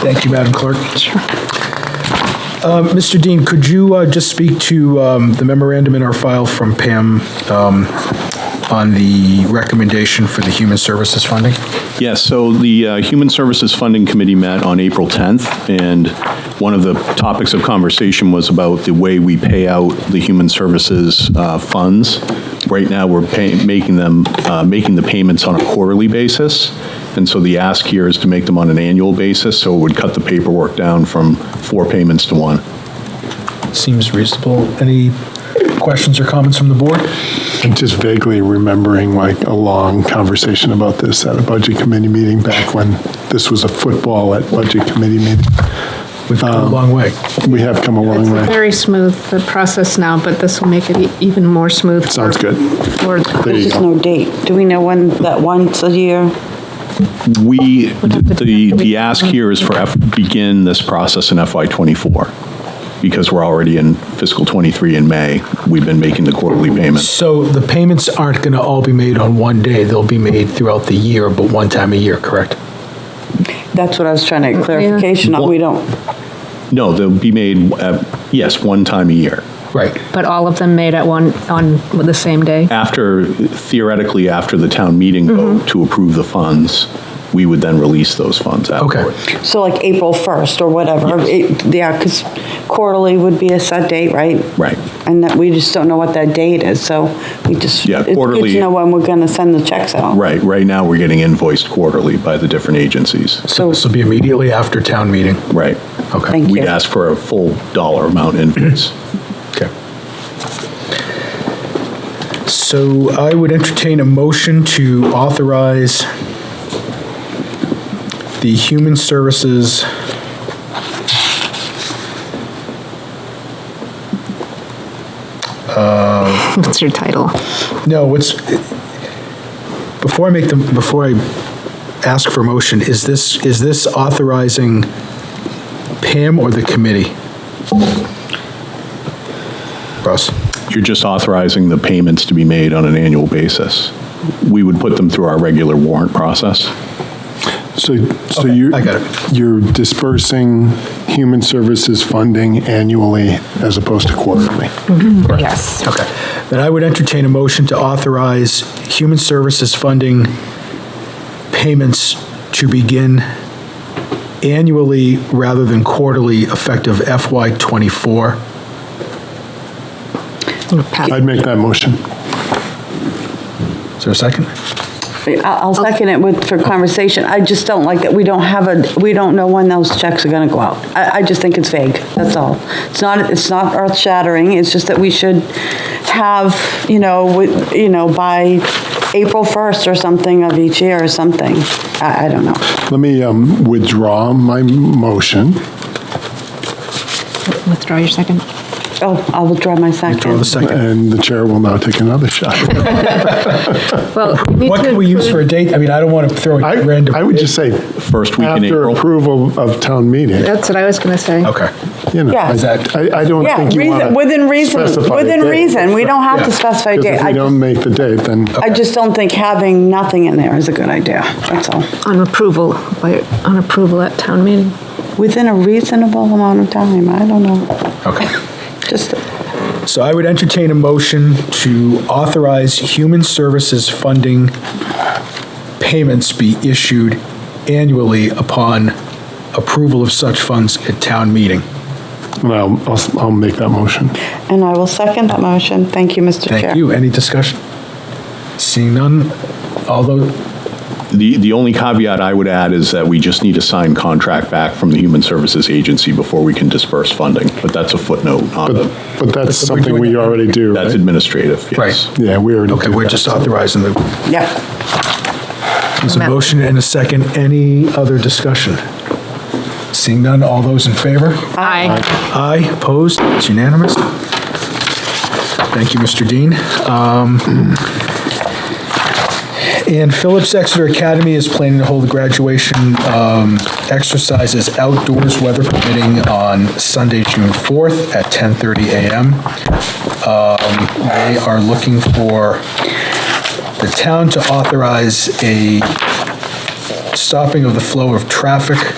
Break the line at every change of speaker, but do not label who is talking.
Thank you, Madam Clerk. Um, Mr. Dean, could you uh, just speak to um, the memorandum in our file from Pam um, on the recommendation for the human services funding?
Yes, so the uh, Human Services Funding Committee met on April 10th, and one of the topics of conversation was about the way we pay out the human services uh, funds. Right now, we're paying, making them, uh, making the payments on a quarterly basis, and so the ask here is to make them on an annual basis, so it would cut the paperwork down from four payments to one.
Seems reasonable. Any questions or comments from the board?
I'm just vaguely remembering like a long conversation about this at a budget committee meeting back when this was a football at budget committee meeting.
We've come a long way.
We have come a long
It's
way.
very smooth, the process now, but this will make it e- even more smooth.
Sounds
for-
good. There
for-
you
There's just
go.
no date. Do we know when, that once a year?
We, the, the ask here is for, F- begin this process in FY '24, because we're already in fiscal '23 in May. We've been making the quarterly payments.
So the payments aren't going to all be made on one day. They'll be made throughout the year, but one time a year, correct?
That's what I was trying to get clarification on. We don't,
No, they'll be made, uh, yes, one time a year.
Right.
But all of them made at one, on the same day?
After, theoretically, after the town meeting
Mm-hmm.
vote to approve the funds, we would then release those funds afterward.
so like April 1st or whatever. It- Yeah, because quarterly would be a set date, right?
Right.
And that we just don't know what that date is, so we just,
Yeah,
it's good
quarterly-
to know when we're going to send the checks out.
Right, right now, we're getting invoiced quarterly by the different agencies.
So this will be immediately after town meeting?
Right.
Okay.
Thank
We'd
you.
ask for a full dollar amount invoice.
Okay. So I would entertain a motion to authorize the Human Services
What's your title?
No, what's, before I make the, before I ask for motion, is this, is this authorizing Pam or the committee? Russ?
You're just authorizing the payments to be made on an annual basis. We would put them through our regular warrant process.
So, so
Okay,
you're,
I got it.
you're dispersing human services funding annually as opposed to quarterly.
Yes.
Okay. Then I would entertain a motion to authorize human services funding payments to begin annually rather than quarterly effective FY '24.
I'd make that motion.
Is there a second?
I- I'll second it with, for conversation. I just don't like that we don't have a, we don't know when those checks are gonna go out. I, I just think it's vague, that's all. It's not, it's not earth shattering, it's just that we should have, you know, with- you know, by April 1st or something of each year or something. I, I don't know.
Let me um, withdraw my motion.
Withdraw your second.
Oh, I will draw my second.
Draw the second.
And the chair will now take another shot.
Well, we need
What
to
can we use for a
include-
date? I mean, I don't want to throw
I,
a random.
I would just say,
First week in
after
April.
approval of town meeting.
That's what I was going to say.
Okay.
You know,
Yeah.
I, I- I don't
Yeah,
think you want
reason,
to
within reason, within reason, we don't have to specify a
Because
date.
if we
I
don't
just,
make the date, then
I just don't think having nothing in there is a good idea, that's all.
On approval, by, on approval at town meeting.
Within a reasonable amount of time, I don't know.
Okay.
Just,
So I would entertain a motion to authorize human services funding payments be issued annually upon approval of such funds at town meeting.
well, I'll, I'll make that motion.
and I will second that motion. Thank you, Mr. Chair.
Thank you. Any discussion? Seeing none, although,
The, the only caveat I would add is that we just need a signed contract back from the Human Services Agency before we can disperse funding, but that's a footnote, not
But,
a,
but that's something we already do,
that's
right?
administrative, yes.
Right.
Yeah, we already do
okay, we're
that.
just authorizing the,
Yep.
there's a motion and a second. Any other discussion? Seeing none, all those in favor?
Aye.
Aye, opposed, it's unanimous. Thank you, Mr. Dean. Um, And Phillips Exeter Academy is planning to hold the graduation um, exercises outdoors, weather permitting, on Sunday, June 4th at 10:30 a.m. Um, They are looking for the town to authorize a stopping of the flow of traffic